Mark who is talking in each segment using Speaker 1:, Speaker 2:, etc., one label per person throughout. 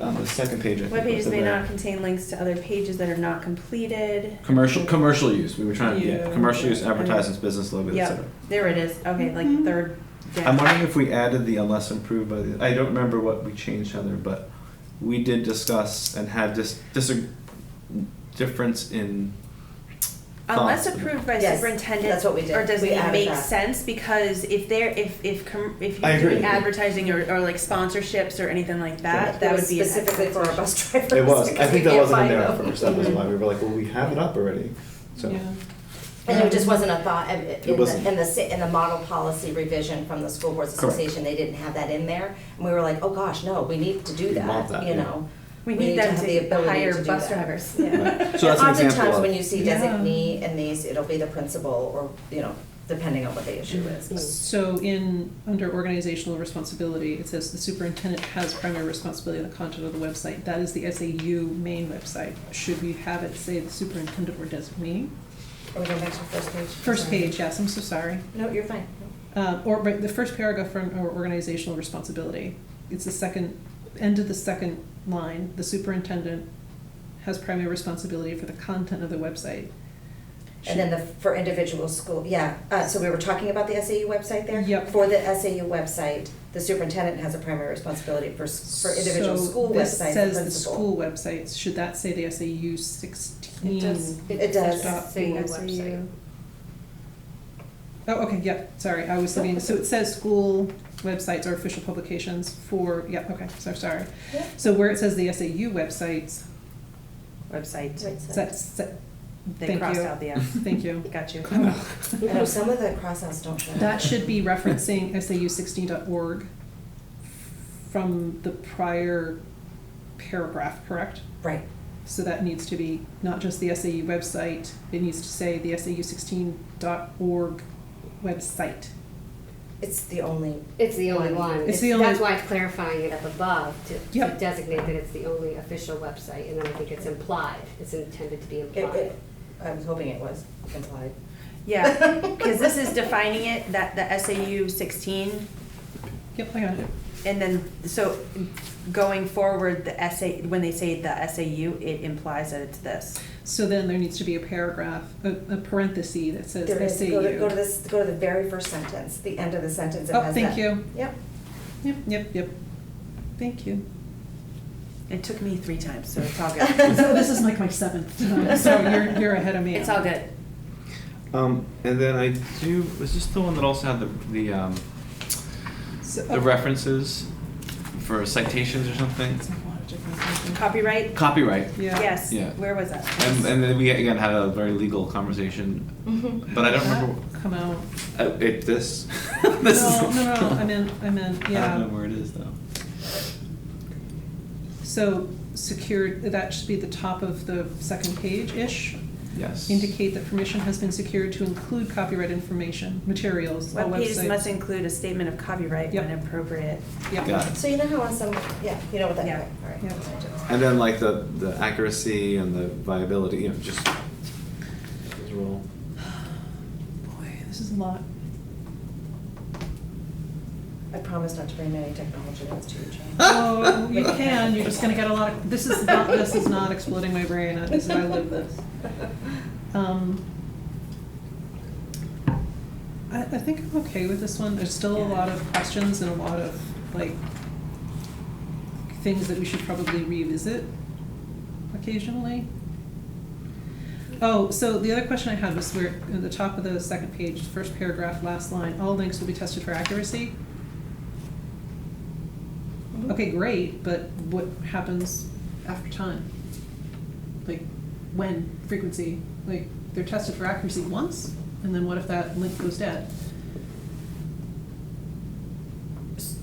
Speaker 1: on Um, the second page. I think,
Speaker 2: Web pages
Speaker 1: of
Speaker 2: may
Speaker 1: the-
Speaker 2: not contain links to other pages that are not completed.
Speaker 1: Commercial, commercial use, we were trying, to yeah,
Speaker 3: Yeah.
Speaker 1: commercial use, advertisements, business logos, et
Speaker 2: Yep,
Speaker 1: cetera.
Speaker 2: there it is, okay, like
Speaker 3: Mhm.
Speaker 2: third. down.
Speaker 1: I'm wondering if we added the unless improved by the, I don't remember what we changed, Heather, but we did discuss and had this, this difference in
Speaker 2: Unless
Speaker 1: thoughts.
Speaker 2: approved by
Speaker 3: Yes,
Speaker 2: superintendent.
Speaker 3: that's what we did.
Speaker 2: Or does
Speaker 3: We
Speaker 2: it
Speaker 3: added
Speaker 2: make
Speaker 3: that.
Speaker 2: sense, because if there, if, if, com- if
Speaker 1: I
Speaker 2: you're
Speaker 1: agree.
Speaker 2: doing advertising or, or like sponsorships or anything like
Speaker 1: Yeah.
Speaker 2: that, that
Speaker 3: It
Speaker 2: would
Speaker 3: was
Speaker 2: be. an
Speaker 3: specifically for our
Speaker 2: advertisement.
Speaker 3: bus drivers.
Speaker 1: It was, I
Speaker 3: because we
Speaker 1: think that
Speaker 3: can't
Speaker 1: wasn't in
Speaker 3: find
Speaker 1: there at
Speaker 3: them.
Speaker 1: first, that was why, we were like, well, we have it up already, so.
Speaker 3: Yeah.
Speaker 4: And it just wasn't a thought, in in
Speaker 1: wasn't.
Speaker 4: the, in the, sa- in the model policy revision from the School Boards
Speaker 1: Correct.
Speaker 4: Association, they didn't have that in there. And we were like, oh gosh, no, we need to do
Speaker 1: We want that,
Speaker 4: that, you
Speaker 1: yeah.
Speaker 4: know?
Speaker 2: We need
Speaker 4: to
Speaker 2: them
Speaker 4: have the
Speaker 2: to
Speaker 4: ability
Speaker 2: hire
Speaker 4: do
Speaker 2: bus
Speaker 4: that.
Speaker 2: drivers,
Speaker 1: Right.
Speaker 2: yeah.
Speaker 1: So that's an example
Speaker 4: Oftentimes,
Speaker 1: of-
Speaker 4: when you see
Speaker 3: Yeah.
Speaker 4: designee in these, it'll be the principal or, you know, depending on what the issue
Speaker 3: Mm.
Speaker 4: is.
Speaker 3: So in, under organizational responsibility, it says the superintendent has primary responsibility on the content of the website. That is the SAU main website. Should we have it say the superintendent or designee?
Speaker 4: Are we going back to the first page?
Speaker 3: First
Speaker 4: Sorry.
Speaker 3: page, yes, I'm so sorry.
Speaker 4: No, you're fine.
Speaker 3: Uh, or, but the first paragraph from our organizational responsibility, it's the second, end of the second line, the superintendent has primary responsibility for the content of the website.
Speaker 4: And then the, for individual school, yeah, uh, so we were talking about the SAU website there?
Speaker 3: Yep.
Speaker 4: For the SAU website, the superintendent has a primary responsibility for, s- for individual
Speaker 3: So
Speaker 4: school
Speaker 3: this
Speaker 4: websites, the
Speaker 3: Says the
Speaker 4: principal.
Speaker 3: school websites, should that say the SAU sixteen?
Speaker 5: It does.
Speaker 4: It does.
Speaker 3: dot
Speaker 5: Say
Speaker 3: org.
Speaker 5: SAU. website.
Speaker 3: Oh, okay, yeah, sorry, I was looking, so it says school websites or official publications for, yeah, okay, so sorry.
Speaker 4: Yeah.
Speaker 3: So where it says the SAU websites,
Speaker 2: Website,
Speaker 4: Right, so-
Speaker 3: that's, that-
Speaker 2: they
Speaker 3: Thank
Speaker 2: crossed
Speaker 3: you.
Speaker 2: out the F,
Speaker 3: thank you.
Speaker 2: got you.
Speaker 4: I know some of the crossouts don't show.
Speaker 3: That should be referencing SAU16.org from the prior paragraph, correct?
Speaker 4: Right,
Speaker 3: So that needs to be not just the SAU website, it needs to say the SAU16.org website.
Speaker 4: it's the only,
Speaker 5: It's the only one.
Speaker 3: It's the only-
Speaker 5: That's why it's clarifying it up above to- to
Speaker 3: Yep.
Speaker 5: designate that it's the only official website, and then I think it's implied, it's intended to be
Speaker 4: it,
Speaker 5: implied.
Speaker 4: it, I was hoping it was implied.
Speaker 2: Yeah, because this is defining it, that the SAU sixteen,
Speaker 3: Yep, I got it.
Speaker 2: and then, so going forward, the SA, when they say the SAU, it implies that it's this.
Speaker 3: So then there needs to be a paragraph, a, a parenthesis that says
Speaker 4: There is-
Speaker 3: SAU.
Speaker 4: Go to, go to this, go to the very first sentence, the end of the sentence, it
Speaker 3: Oh,
Speaker 4: has
Speaker 3: thank
Speaker 4: that.
Speaker 3: you.
Speaker 4: Yep,
Speaker 3: Yep, yep, yep. Thank you.
Speaker 2: It took me three times, so it's all good.
Speaker 3: So this is like my seventh, time, so you're, you're ahead of me.
Speaker 2: It's all good.
Speaker 1: Um, and then I do, was this the one that also had the, the, um,
Speaker 3: So- uh,
Speaker 1: the references for citations or something?
Speaker 3: It's a lot of different things.
Speaker 2: Copyright?
Speaker 1: Copyright.
Speaker 3: Yeah.
Speaker 2: Yes,
Speaker 1: Yeah.
Speaker 2: where was that?
Speaker 1: And, and then we again had a very legal conversation,
Speaker 3: Mm-hmm.
Speaker 1: but I don't remember,
Speaker 3: That Come out.
Speaker 1: uh, it, this, this is.
Speaker 3: No, no, no, I meant, I meant,
Speaker 1: I don't know
Speaker 3: yeah.
Speaker 1: where it is though.
Speaker 3: So secured, that should be the top of the second page-ish.
Speaker 1: Yes.
Speaker 3: Indicate that permission has been secured to include copyright information, materials, all
Speaker 2: Web pages
Speaker 3: websites.
Speaker 2: must include a statement of copyright when
Speaker 3: Yep.
Speaker 2: appropriate.
Speaker 3: Yeah,
Speaker 1: Got it.
Speaker 4: so you know how on some, yeah, you know what that,
Speaker 2: Yeah.
Speaker 4: right, all right.
Speaker 3: Yeah.
Speaker 1: And then like the, the accuracy and the viability, you know, just. those are all-
Speaker 3: boy, this is a lot.
Speaker 4: I promise not to bring any technology notes to you, Jane.
Speaker 3: Oh, you can, you're just gonna get a lot of, this is not, this is not exploding my brain, I- this, I live this. Um, I, I think I'm okay with this one. There's still a lot of questions and a lot of like things that we should probably revisit occasionally. Oh, so the other question I had was where, in the top of the second page, first paragraph, last line, all links will be tested for accuracy. Okay, great, but what happens after time? Like, when, frequency? Like, they're tested for accuracy once, and then what if that link goes dead? So,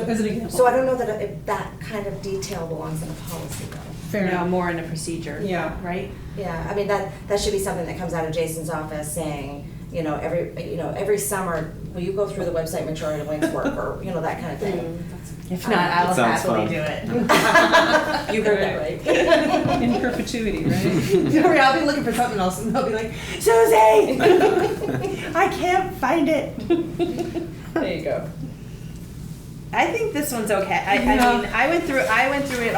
Speaker 4: Um,
Speaker 3: as an example.
Speaker 4: So I don't know that if that kind of detail belongs in a policy though.
Speaker 3: Fair
Speaker 2: Now,
Speaker 3: enough.
Speaker 2: more in a procedure.
Speaker 3: Yeah.
Speaker 2: Right?
Speaker 4: Yeah, I mean, that, that should be something that comes out of Jason's office saying, you know, every, you know, every summer, will you go through the website majority of links work, or, you know, that kind of thing.
Speaker 2: Mm. If
Speaker 4: not, I'll
Speaker 1: That sounds happily fun. do
Speaker 2: it.
Speaker 4: You heard that right.
Speaker 3: In perpetuity, right?
Speaker 2: I'll be looking for something else, and they'll be like, Susie, I can't find it.
Speaker 4: There you go.
Speaker 2: I think this one's okay. I, I
Speaker 3: Yeah.
Speaker 2: mean, I went through, I went through it